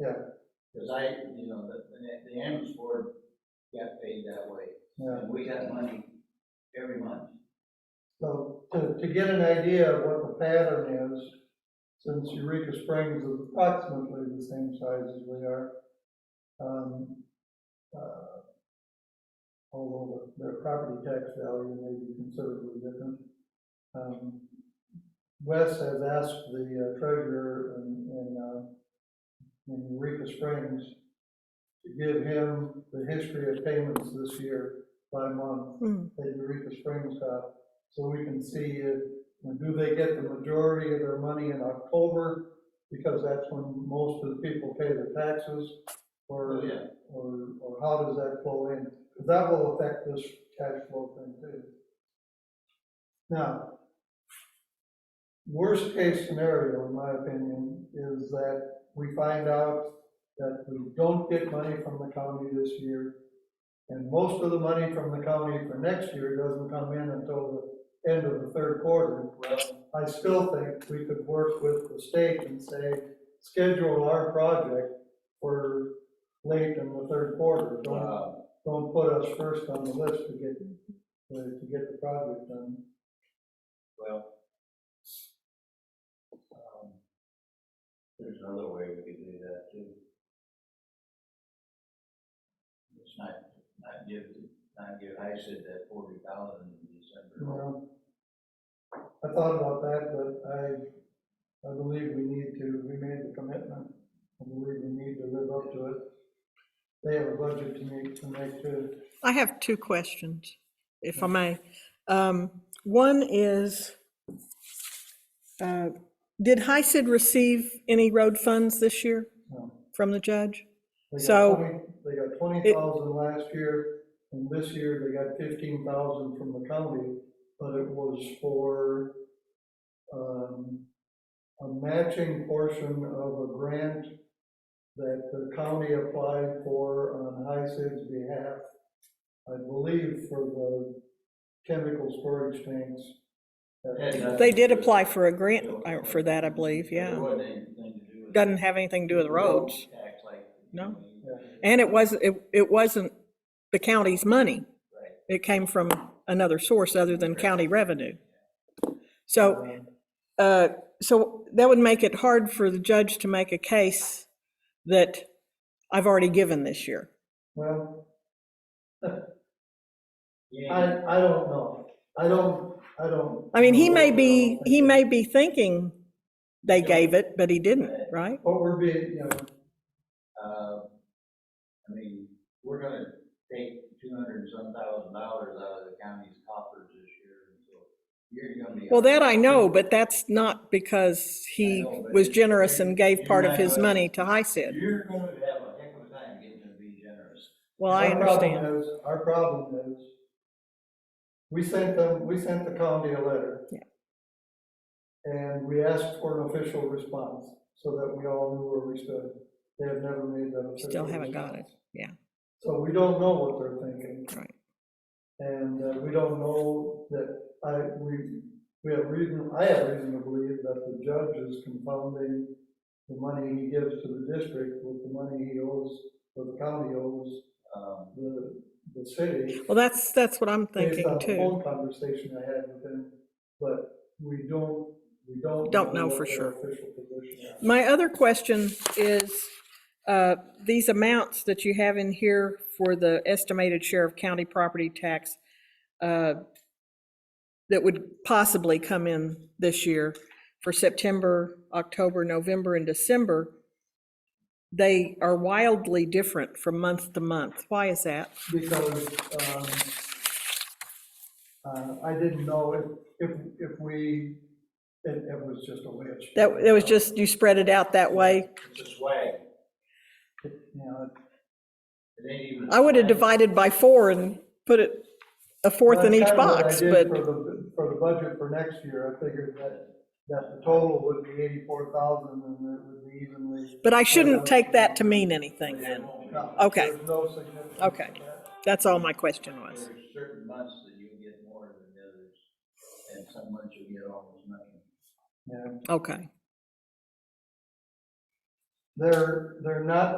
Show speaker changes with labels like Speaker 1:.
Speaker 1: Yeah.
Speaker 2: Cause I, you know, the, the- the ambulance board got paid that way,
Speaker 1: Yeah.
Speaker 2: and we got money every month.
Speaker 1: So to, to get an idea of what the pattern is, since Eureka Springs is approximately the same size as we are, um, uh, although the- their property tax value may be considerably different. Um, Wes has asked the uh, treasurer in, in, uh, in Eureka Springs to give him the history of payments this year by month
Speaker 3: Hmm.
Speaker 1: that Eureka Springs got so we can see if, and do they get the majority of their money in October? Because that's when most of the people pay their taxes, or,
Speaker 2: yeah.
Speaker 1: or, or how does that flow in? Because that will affect this cash flow thing too. Now, worst case scenario, in my opinion, is that we find out that we don't get money from the county this year, and most of the money from the county for next year doesn't come in until the end of the third quarter.
Speaker 2: Well,
Speaker 1: I still think we could work with the state and say, schedule our project for late in the third quarter. Don't,
Speaker 2: uh,
Speaker 1: don't put us first on the list to get, to to get the project done.
Speaker 2: well. um, There's another way we could do that too. Let's not, not give, not give ISID that forty thousand in December.
Speaker 1: Well, I thought about that, but I, I believe we need to, we made the commitment, I believe we need to live up to it. They have a budget to make, to make too.
Speaker 3: I have two questions, if I may. Um, One is, uh, did HICID receive any road funds this year
Speaker 1: No.
Speaker 3: from the judge?
Speaker 1: They got
Speaker 3: So-
Speaker 1: 20 They got twenty thousand last year, and this year they got fifteen thousand from the county, but it was for, um, a matching portion of a grant that the county applied for on HICID's behalf, I believe for the chemical storage tanks.
Speaker 2: Yeah.
Speaker 3: They did apply for a grant uh, for that, I believe,
Speaker 2: It
Speaker 3: yeah.
Speaker 2: wasn't anything to do with.
Speaker 3: Doesn't have anything to do with roads.
Speaker 2: Act like-
Speaker 3: No.
Speaker 1: Yeah.
Speaker 3: And it wasn't, it- it wasn't the county's money.
Speaker 2: Right.
Speaker 3: It came from another source other than county revenue. So Uh, So that would make it hard for the judge to make a case that I've already given this year.
Speaker 1: Well, I,
Speaker 2: Yeah,
Speaker 1: I don't know. I don't, I don't.
Speaker 3: I mean, he
Speaker 1: know
Speaker 3: may
Speaker 1: what-
Speaker 3: be, he may be thinking they gave it, but he didn't, right?
Speaker 1: What we're being, you know,
Speaker 2: uh, I mean, we're gonna take two hundred and some thousand dollars out of the county's coffers this year, and so you're gonna be.
Speaker 3: Well, that I know, but that's not because he was generous and gave part of his money to HICID.
Speaker 2: You're gonna have a heck of a time getting to be generous.
Speaker 3: Well, I
Speaker 1: our problem
Speaker 3: understand.
Speaker 1: is, our problem is, we sent them, we sent the county a letter.
Speaker 3: Yeah.
Speaker 1: And we asked for an official response so that we all knew where we stood. They have never made that official.
Speaker 3: Still haven't got it,
Speaker 1: response.
Speaker 3: yeah.
Speaker 1: So we don't know what they're thinking.
Speaker 3: Right.
Speaker 1: And uh, we don't know that, I, we, we have reason, I have reason to believe that the judge is confounding the money he gives to the district with the money he owes, or the county owes,
Speaker 2: Um,
Speaker 1: the, the city.
Speaker 3: Well, that's, that's what I'm
Speaker 1: Based on
Speaker 3: thinking
Speaker 1: the
Speaker 3: too.
Speaker 1: Phone conversation I had with him, but we don't, we don't.
Speaker 3: Don't know
Speaker 1: what
Speaker 3: for
Speaker 1: their
Speaker 3: sure.
Speaker 1: Official position is.
Speaker 3: My other question is, uh, these amounts that you have in here for the estimated share of county property tax uh, that would possibly come in this year for September, October, November, and December, they are wildly different from month to month. Why is that?
Speaker 1: because, um, uh, I didn't know if, if, if we, it, it was just a wish.
Speaker 3: That, that was just, you spread it out that way?
Speaker 2: it's a swag,
Speaker 1: You know,
Speaker 2: it ain't even. a
Speaker 3: I would have
Speaker 2: swag.
Speaker 3: divided by four and put it, a fourth in
Speaker 1: that's
Speaker 3: each
Speaker 1: kinda what I
Speaker 3: box,
Speaker 1: did
Speaker 3: but.
Speaker 1: For the, for the budget for next year, I figured that, that the total would be eighty-four thousand and it would be evenly.
Speaker 3: But I shouldn't take that to mean anything then.
Speaker 1: No,
Speaker 3: Okay.
Speaker 1: There's no significance. to
Speaker 3: Okay.
Speaker 1: that.
Speaker 3: That's all my question was.
Speaker 2: There's certain months that you get more than others, and some months you get almost nothing.
Speaker 1: Yeah,
Speaker 3: Okay.
Speaker 1: They're, they're not